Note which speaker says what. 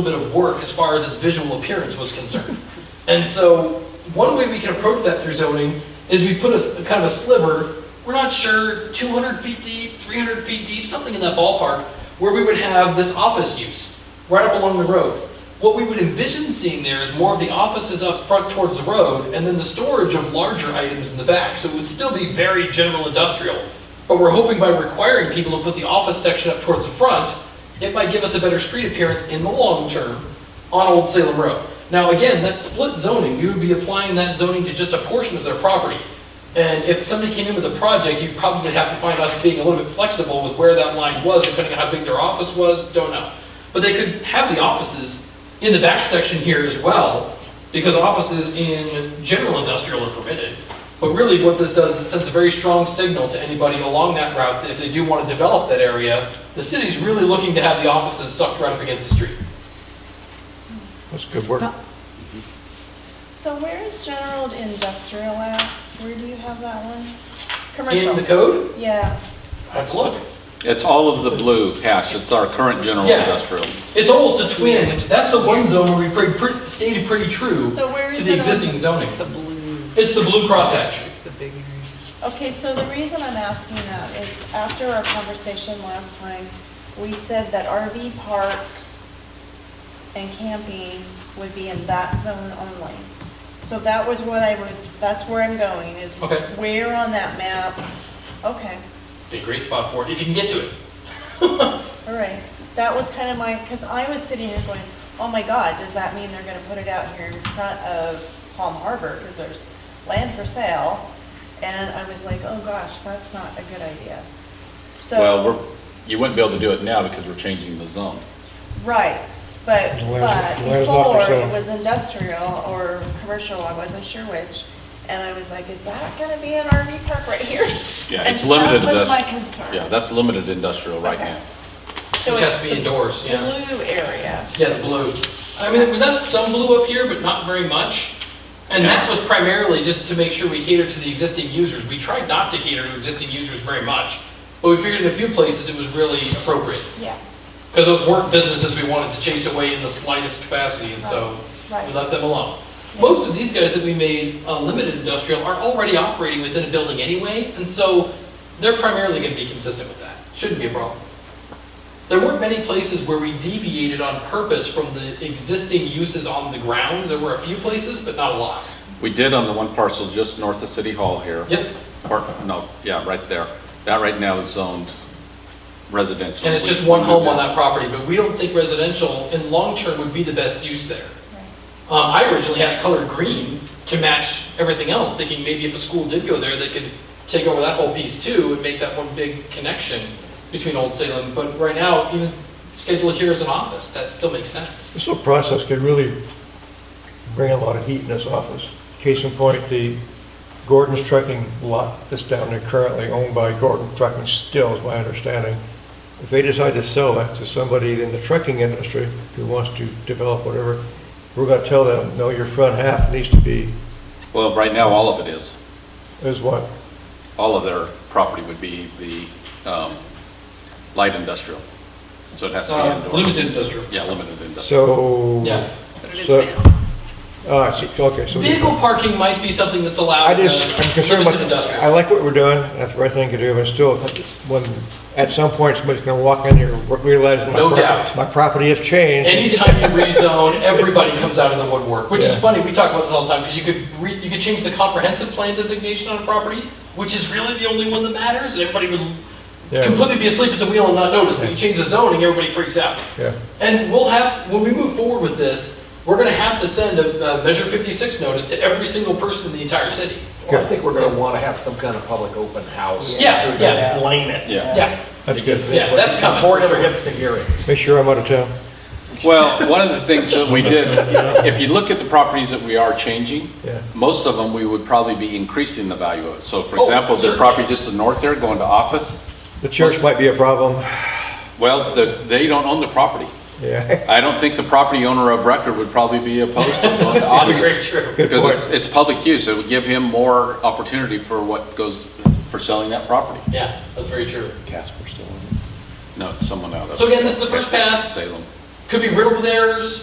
Speaker 1: little bit of work as far as its visual appearance was concerned. And so, one way we can approach that through zoning is we put a, kind of a sliver, we're not sure, 200 feet deep, 300 feet deep, something in that ballpark, where we would have this office use, right up along the road. What we would envision seeing there is more of the offices up front towards the road, and then the storage of larger items in the back, so it would still be very general industrial. But we're hoping by requiring people to put the office section up towards the front, it might give us a better street appearance in the long term on Old Salem Road. Now, again, that split zoning, you would be applying that zoning to just a portion of their property. And if somebody came in with a project, you'd probably have to find us being a little bit flexible with where that line was, depending on how big their office was, don't know. But they could have the offices in the back section here as well, because offices in general industrial are permitted. But really, what this does is it sends a very strong signal to anybody along that route that if they do want to develop that area, the city's really looking to have the offices sucked right up against the street.
Speaker 2: That's good work.
Speaker 3: So where is general industrial at? Where do you have that one?
Speaker 1: In the
Speaker 3: Commercial?
Speaker 1: code,
Speaker 3: Yeah,
Speaker 1: I have to look.
Speaker 4: It's all of the blue hash, it's our current general
Speaker 1: Yeah.
Speaker 4: industrial.
Speaker 1: It's almost a twin, because that's the one zone where we pretty, pretty, stated pretty true
Speaker 3: So where
Speaker 1: to
Speaker 3: is
Speaker 1: the
Speaker 3: it on-
Speaker 1: existing zoning.
Speaker 5: The blue,
Speaker 1: It's the blue crosshatch.
Speaker 5: it's the big area.
Speaker 3: okay, so the reason I'm asking that is after our conversation last time, we said that RV parks and camping would be in that zone only. So that was what I was, that's where I'm going, is
Speaker 1: Okay.
Speaker 3: where on that map? Okay,
Speaker 1: Be a great spot for it, if you can get to it.
Speaker 3: all right. That was kind of my, because I was sitting here going, oh my God, does that mean they're gonna put it out here in front of Palm Harbor? Because there's land for sale. And I was like, oh gosh, that's not a good idea. So,
Speaker 4: Well, we're, you wouldn't be able to do it now because we're changing the zone.
Speaker 3: right, but,
Speaker 2: The
Speaker 3: but
Speaker 2: land's- the land's not for
Speaker 3: before
Speaker 2: sale.
Speaker 3: it was industrial or commercial, I wasn't sure which. And I was like, is that gonna be an RV park right here?
Speaker 4: Yeah,
Speaker 3: And
Speaker 4: it's limited to
Speaker 3: That
Speaker 4: the-
Speaker 3: was my concern.
Speaker 4: Yeah, that's limited industrial right
Speaker 3: Okay.
Speaker 4: now.
Speaker 3: So
Speaker 1: Which has
Speaker 3: it's
Speaker 1: to be
Speaker 3: the
Speaker 1: indoors, yeah.
Speaker 3: Blue area.
Speaker 1: Yeah, the blue. I mean, we left some blue up here, but not very much. And that was primarily just to make sure we catered to the existing users. We tried not to cater to existing users very much, but we figured in a few places it was really appropriate.
Speaker 3: Yeah,
Speaker 1: Because those weren't businesses we wanted to chase away in the slightest capacity, and so
Speaker 3: Right, right.
Speaker 1: we left them alone.
Speaker 3: Yeah.
Speaker 1: Most of these guys that we made uh, limited industrial are already operating within a building anyway, and so they're primarily going to be consistent with that. Shouldn't be a problem. There weren't many places where we deviated on purpose from the existing uses on the ground. There were a few places, but not a lot.
Speaker 4: We did on the one parcel just north of City Hall here.
Speaker 1: Yep,
Speaker 4: Or, no, yeah, right there. That right now is zoned residential.
Speaker 1: and it's just one home on that property, but we don't think residential in long-term would be the best use there.
Speaker 3: right.
Speaker 1: Um, I originally had it colored green to match everything else, thinking maybe if a school did go there, they could take over that whole piece too and make that one big connection between Old Salem. But right now, even scheduled here as an office, that still makes sense.
Speaker 2: This little process could really bring a lot of heat in this office. Case in point, the Gordon's Trucking lot that's down there currently owned by Gordon Trucking still, is my understanding. If they decide to sell that to somebody in the trucking industry who wants to develop whatever, we're gonna tell them, no, your front half needs to be,
Speaker 4: Well, right now, all of it is.
Speaker 2: is what?
Speaker 4: All of their property would be the um, light industrial. So it has to
Speaker 1: Uh,
Speaker 4: be indoor.
Speaker 1: Limited industrial.
Speaker 4: Yeah, limited industrial.
Speaker 2: So.
Speaker 1: Yeah.
Speaker 5: But it is
Speaker 2: So-
Speaker 5: now.
Speaker 2: Ah, I see, okay, so.
Speaker 1: Vehicle parking might be something that's allowed.
Speaker 2: I
Speaker 1: uh,
Speaker 2: just, I'm concerned
Speaker 1: limited
Speaker 2: about,
Speaker 1: industrial.
Speaker 2: I like what we're doing, that's the right thing to do, but still, when, at some point, somebody's gonna walk in here, realize my
Speaker 1: No
Speaker 2: pro-
Speaker 1: doubt.
Speaker 2: My property has changed,
Speaker 1: Anytime you rezone, everybody comes out of the woodwork, which is
Speaker 2: Yeah.
Speaker 1: funny, we talk about this all the time, because you could re, you could change the comprehensive plan designation on a property, which is really the only one that matters, and everybody would
Speaker 2: Yeah.
Speaker 1: completely be asleep at the wheel and not notice, but you change the zoning, everybody freaks out.
Speaker 2: Yeah.
Speaker 1: And we'll have, when we move forward with this, we're gonna have to send a, a Measure fifty-six notice to every single person in the entire city.
Speaker 6: Well, I think we're gonna wanna have some kind of public open house.
Speaker 1: Yeah,
Speaker 6: To
Speaker 1: yeah.
Speaker 6: Explain it.
Speaker 4: Yeah.
Speaker 1: Yeah,
Speaker 2: that's good.
Speaker 1: yeah, that's coming,
Speaker 6: Before
Speaker 1: for
Speaker 6: it ever
Speaker 1: sure.
Speaker 6: gets to hearing.
Speaker 2: Make sure I'm out of town.
Speaker 4: Well, one of the things that we did, if you look at the properties that we are changing,
Speaker 2: Yeah.
Speaker 4: most of them, we would probably be increasing the value of. So for
Speaker 1: Oh,
Speaker 4: example, the
Speaker 1: certainly.
Speaker 4: property just to the north there going to office,
Speaker 2: The church might be a problem,
Speaker 4: well, the- they don't own the property.
Speaker 2: yeah,
Speaker 4: I don't think the property owner of record would probably be opposed to going to
Speaker 1: That's very
Speaker 4: office.
Speaker 1: true.
Speaker 2: Good
Speaker 4: Because
Speaker 2: point.
Speaker 4: it's, it's public use, it would give him more opportunity for what goes, for selling that property.
Speaker 1: Yeah, that's very true.
Speaker 4: No, it's someone out of.
Speaker 1: So again, this is the first pass.
Speaker 4: Salem.
Speaker 1: Could be riddled with errors,